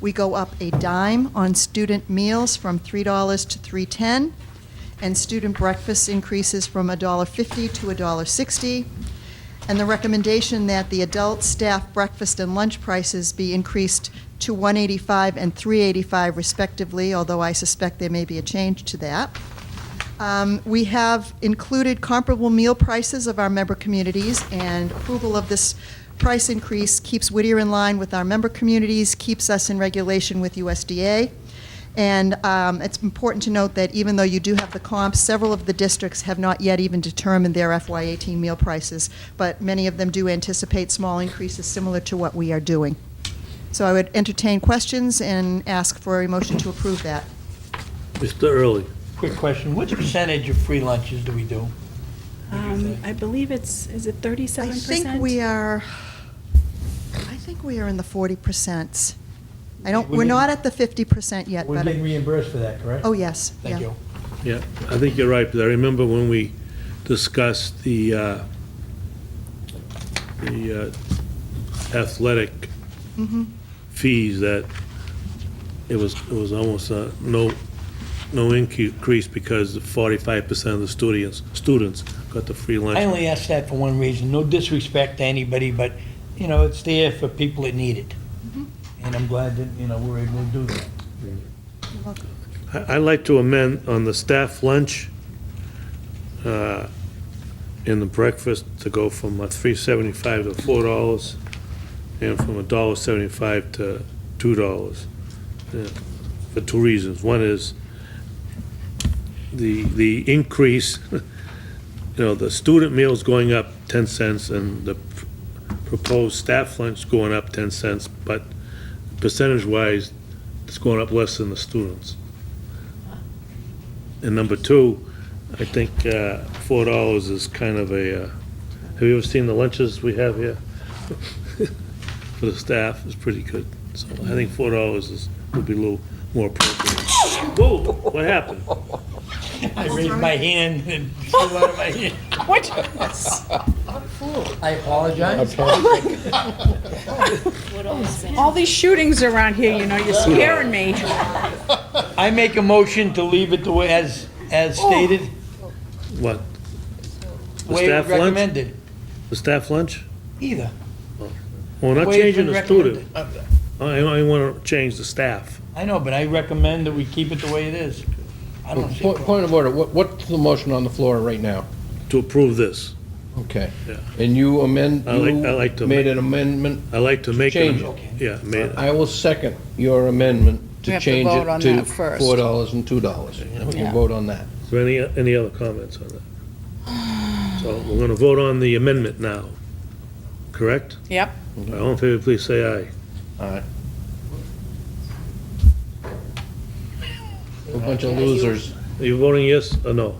We go up a dime on student meals from $3 to $3.10, and student breakfast increases from $1.50 to $1.60. And the recommendation that the adult staff breakfast and lunch prices be increased to 185 and 385 respectively, although I suspect there may be a change to that. Um, We have included comparable meal prices of our member communities, and approval of this price increase keeps Whittier in line with our member communities, keeps us in regulation with USDA. And um, it's important to note that even though you do have the comps, several of the districts have not yet even determined their FY18 meal prices, but many of them do anticipate small increases similar to what we are doing. So I would entertain questions and ask for a motion to approve that. Mr. Early, Quick question, which percentage of free lunches do we do? Um, I believe it's, is it 37%? I think we are, I think we are in the forty percent. I don't, we're not at the fifty percent yet, We're but, getting reimbursed for that, correct? oh, yes, Thank yeah. you. yeah, I think you're right, but I remember when we discussed the, uh, the uh, athletic fees, that it was, it was almost uh, no, no increase because 45% of the students, students got the free lunch. I only ask that for one reason, no disrespect to anybody, but, you know, it's there for people that need it. Mm-hmm. And I'm glad that, you know, we're able to do that. I- I'd like to amend on the staff lunch uh, and the breakfast to go from uh, $3.75 to $4 and from $1.75 to $2 yeah, for two reasons. One is the, the increase, you know, the student meal's going up 10 cents and the proposed staff lunch going up 10 cents, but percentage-wise, it's going up less than the students. And number two, I think uh, four dollars is kind of a, uh, have you ever seen the lunches we have here? For the staff, it's pretty good. So I think four dollars is, would be a little more appropriate. Whoa, what happened? I raised my hand and it flew out of my hand. What? I apologize. All these shootings around here, you know, you're scaring me. I make a motion to leave it the way, as, as Oh. stated, What, way staff lunch? recommended. the staff lunch? Either. Well, we're not way it's changing been the student. recommended. Uh, I only want to change the staff. I know, but I recommend that we keep it the way it is. I don't see. a Point problem. point of order, What- what's the motion on the floor right now? To approve this, Okay. Yeah. And you amend, I like- I like to you made an amendment, I like to make. an- Change it. Yeah, made, I will second your amendment We to have to change vote on it to that first. four dollars and two dollars. We can Yeah. vote on that. Is there any, any other comments on that? So we're going to vote on the amendment now, correct? Yep. All in favor, please say aye. All right. A bunch of losers. Are you voting yes or no?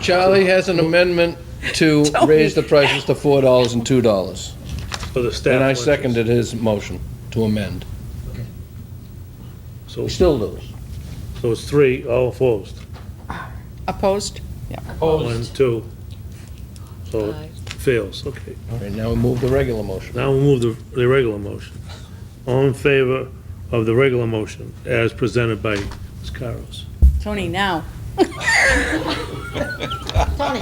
Charlie has an amendment to raise the prices to four dollars and two dollars. For the staff. And I lunches. seconded his motion to amend. So, We still lose. so it's three, all opposed. Opposed? One, two. So it fails, okay. All right, now we move the regular motion. Now we'll move the, the regular motion. All in favor of the regular motion as presented by Ms. Caros? Tony, now. Tony,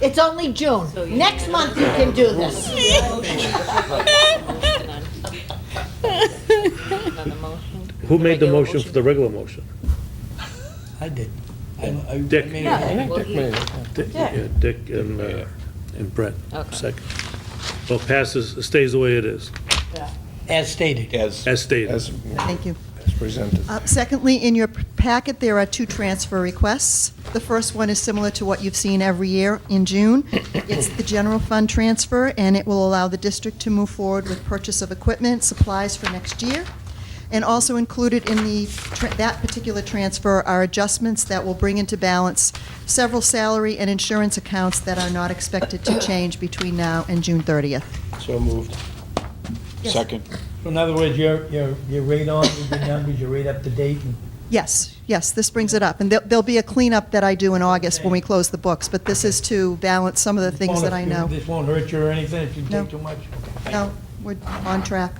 it's only June. Next month you can do this. Who made the motion for the regular motion? I did. I- I- I Dick. made a- Dick- yeah, Dick and, uh, and Brett, second. So it passes, it stays the way it is, As stated. As, as stated. as Thank you. as presented. Uh, Secondly, in your packet, there are two transfer requests. The first one is similar to what you've seen every year in June. It's the general fund transfer, and it will allow the district to move forward with purchase of equipment, supplies for next year. And also included in the, tr- that particular transfer are adjustments that will bring into balance several salary and insurance accounts that are not expected to change between now and June 30th. So moved. Second. So In other words, you're, you're, you're right on with your numbers, you're right up to date. and- Yes, yes, this brings it up. And there'll, there'll be a cleanup that I do in August when we close the books, but this is to balance some of the things that I know. This won't hurt you or anything if you No. take too much? Okay, thank No, we're on track.